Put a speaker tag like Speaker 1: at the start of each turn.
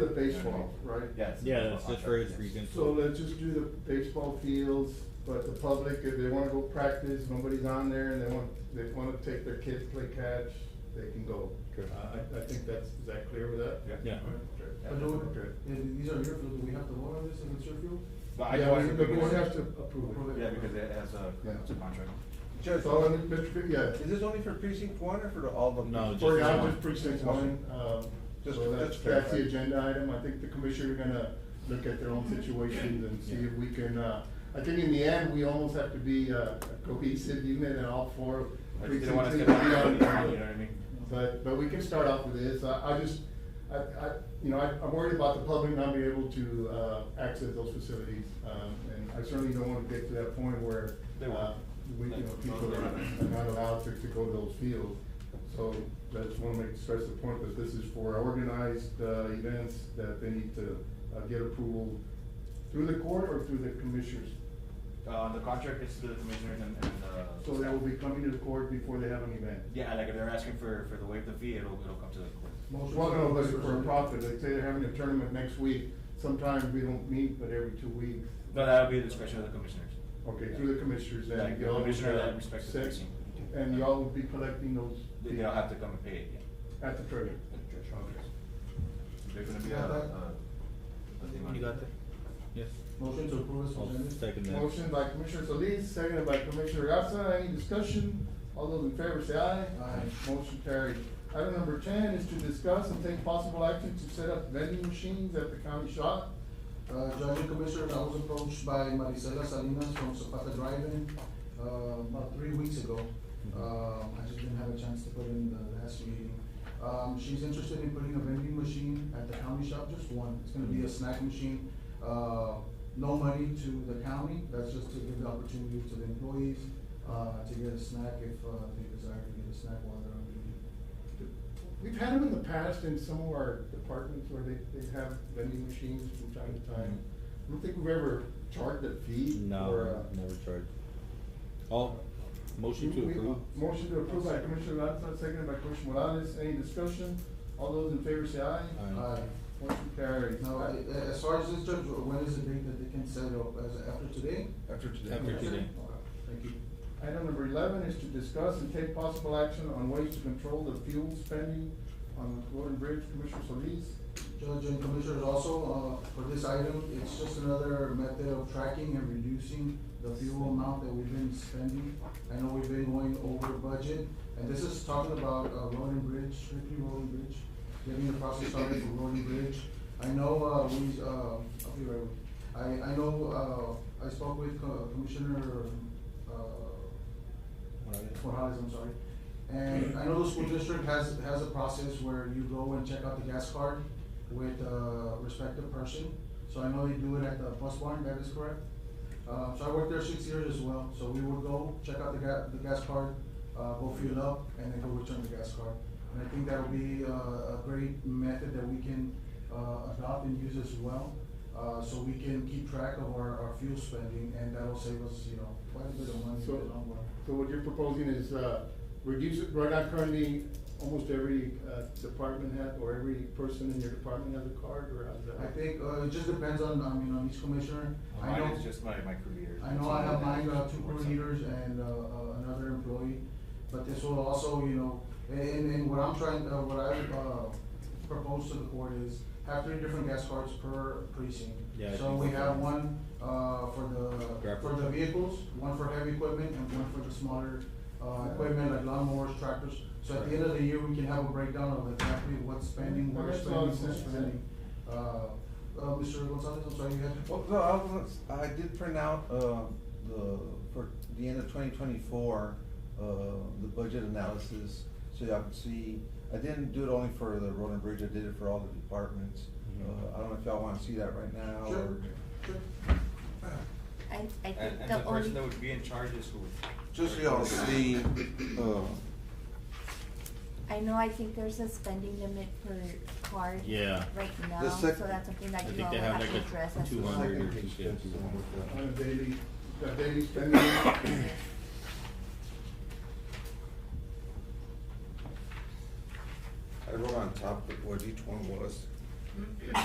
Speaker 1: The baseball, right?
Speaker 2: Yes.
Speaker 3: Yeah, that's just for his region.
Speaker 1: So let's just do the baseball fields, but the public, if they wanna go practice, nobody's on there and they want, they wanna take their kids, play catch, they can go. Uh,
Speaker 3: Good.
Speaker 1: I, I think that's, is that clear with that?
Speaker 3: Yeah.
Speaker 1: Okay.
Speaker 4: And do we-
Speaker 1: Okay.
Speaker 4: and these are your field, do we have to vote on this if it's your field?
Speaker 2: But I
Speaker 1: Yeah,
Speaker 2: know I
Speaker 1: we-
Speaker 2: should
Speaker 1: the
Speaker 2: be
Speaker 1: board
Speaker 2: more-
Speaker 1: has to approve
Speaker 4: Approve
Speaker 1: it.
Speaker 2: Yeah, because it has a, it's a contract.
Speaker 5: Judge,
Speaker 1: So, and Mr. Fi- yeah.
Speaker 5: is this only for precinct one or for all of them?
Speaker 3: No,
Speaker 1: For
Speaker 3: just
Speaker 1: now,
Speaker 3: one.
Speaker 1: just precinct one, um,
Speaker 5: Just-
Speaker 1: so that's,
Speaker 5: just
Speaker 1: that's the
Speaker 5: clarify.
Speaker 1: agenda item, I think the commissioner are gonna look at their own situations and see if we can, uh, I think in the end, we almost have to be uh, a cohesive unit and all four
Speaker 2: I
Speaker 1: precincts
Speaker 2: just didn't wanna
Speaker 1: need to
Speaker 2: skip
Speaker 1: be on
Speaker 2: out on anything, you know what I mean?
Speaker 1: But, but we can start off with this, I, I just, I, I, you know, I, I'm worried about the public not being able to, uh, access those facilities, um, and I certainly don't wanna get to that point where,
Speaker 2: They won't.
Speaker 1: uh, we, you know, people are are not allowed to, to go to those fields. So I just wanna make, stress the point that this is for organized, uh, events that they need to, uh, get approval through the court or through the commissioners.
Speaker 2: Uh, the contract is through the commissioners and, and, uh.
Speaker 1: So they will be coming to the court before they have an event.
Speaker 2: Yeah, like if they're asking for, for the waive the fee, it'll, it'll come to the court.
Speaker 4: Motion
Speaker 1: Well, no,
Speaker 4: to-
Speaker 1: but for a profit, like say they're having a tournament next week, sometimes we don't meet, but every two weeks.
Speaker 2: No, that'll be the discretion of the commissioners.
Speaker 1: Okay, through the commissioners then.
Speaker 2: Like the
Speaker 1: y'all would,
Speaker 2: commissioner that
Speaker 1: uh,
Speaker 2: respects the
Speaker 1: set-
Speaker 2: precinct.
Speaker 1: And y'all would be collecting those.
Speaker 2: They, they'll have to come and pay it, yeah.
Speaker 1: At the treasury. Okay.
Speaker 2: They're gonna be, uh, uh.
Speaker 3: You got that? Yes.
Speaker 4: Motion to approve is presented.
Speaker 3: Second that.
Speaker 1: Motion by Commissioner Solis, seconded by Commissioner Garza, any discussion? All those in favor say aye.
Speaker 4: Aye.
Speaker 1: Motion carried. Item number ten is to discuss and take possible action to set up vending machines at the county shop.
Speaker 4: Uh, Judge and Commissioner, I was approached by Marisela Salinas from Zapata Drive-In, uh, about three weeks ago. Uh, I just didn't have a chance to put in the last meeting. Um, she's interested in putting a vending machine at the county shop, just one. It's gonna be a snack machine. Uh, no money to the county, that's just to give the opportunity to the employees, uh, to get a snack if, uh, they desire to get a snack while they're on duty.
Speaker 1: We've had them in the past in some of our departments where they, they have vending machines from time to time. I don't think we've ever charged a fee. or,
Speaker 3: No,
Speaker 1: uh,
Speaker 3: never charged. All, motion to
Speaker 1: we- uh,
Speaker 3: approve?
Speaker 1: Motion to approve by Commissioner Garza, seconded by Commissioner Morales. Any discussion? All those in favor say aye.
Speaker 3: Aye.
Speaker 4: Aye.
Speaker 1: Motion carries.
Speaker 4: Uh, Now, I- a- as far as this, Judge, when is the date that they can set up, as after today?
Speaker 1: After today.
Speaker 3: After today.
Speaker 4: Okay, Thank you.
Speaker 1: Item number eleven is to discuss and take possible action on ways to control the fuel spending on Gordon Bridge. Commissioner Solis.
Speaker 4: Judge and Commissioners, also, uh, for this item, it's just another method of tracking and reducing the fuel amount that we've been spending. I know we've been going over budget, and this is talking about, uh, road and bridge, strictly road and bridge, getting the process started for road and bridge. I know, uh, we, uh, I'll be right with you. I, I know, uh, I spoke with uh, Commissioner, uh, Morales, I'm sorry. And I know the school district has, has a process where you go and check out the gas card with a respective person. So I know they do it at the bus barn, that is correct. Uh, so I worked there six years as well, so we would go, check out the ga- the gas card, uh, go fuel up, and then go return the gas card. And I think that would be a, a great method that we can, uh, adopt and use as well. Uh, so we can keep track of our, our fuel spending, and that'll save us, you know, quite a bit of money in the
Speaker 1: So-
Speaker 4: long run.
Speaker 1: So what you're proposing is, uh, reduce, it- right now currently, almost every, uh, department head or every person in your department has a card or has that?
Speaker 4: I think, uh, it just depends on, I mean, on each commissioner. I
Speaker 2: Mine
Speaker 4: know,
Speaker 2: is just my, my crew leaders.
Speaker 4: I know I have mine, uh, two crew
Speaker 2: Works out.
Speaker 4: leaders and, uh, uh, another employee, but this will also, you know, and, and what I'm trying, uh, what I, uh, propose to the court is have three different gas cards per precinct.
Speaker 3: Yeah, I
Speaker 4: So
Speaker 3: think
Speaker 4: we
Speaker 3: that's
Speaker 4: have
Speaker 3: right.
Speaker 4: one, uh, for the,
Speaker 3: Grab.
Speaker 4: for the vehicles, one for heavy equipment and one for the smaller, uh, equipment like lawnmowers, tractors. So at the end of the year, we can have a breakdown of exactly what's spending, what we're
Speaker 1: That makes a lot
Speaker 4: spending,
Speaker 1: of
Speaker 4: who's
Speaker 1: sense, yeah.
Speaker 4: spending. Uh, uh, Mr. Gonzalez, I'm sorry, you had.
Speaker 5: Well, no, I was, I did print out, uh, the, for the end of twenty twenty-four, uh, the budget analysis, so y'all can see, I didn't do it only for the road and bridge, I did it for all the departments.
Speaker 3: Mhm.
Speaker 5: Uh, I don't know if y'all wanna see that right now,
Speaker 4: Sure.
Speaker 5: or,
Speaker 6: I, I
Speaker 2: And,
Speaker 6: think
Speaker 2: and the
Speaker 6: the only,
Speaker 2: person that would be in charge is who?
Speaker 5: just so y'all see, uh,
Speaker 6: I know, I think there's a spending limit per card.
Speaker 3: Yeah.
Speaker 6: Right now,
Speaker 5: The
Speaker 6: so
Speaker 5: sec-
Speaker 6: that's something
Speaker 3: I
Speaker 6: that you
Speaker 3: think
Speaker 6: all
Speaker 3: they
Speaker 6: will
Speaker 3: have
Speaker 6: have to
Speaker 3: like a
Speaker 6: address as
Speaker 5: the
Speaker 3: 200
Speaker 6: well.
Speaker 3: or
Speaker 5: second page,
Speaker 3: 250.
Speaker 5: that's the one with the-
Speaker 1: On a daily, the daily spending?
Speaker 5: I wrote on top of what each one was.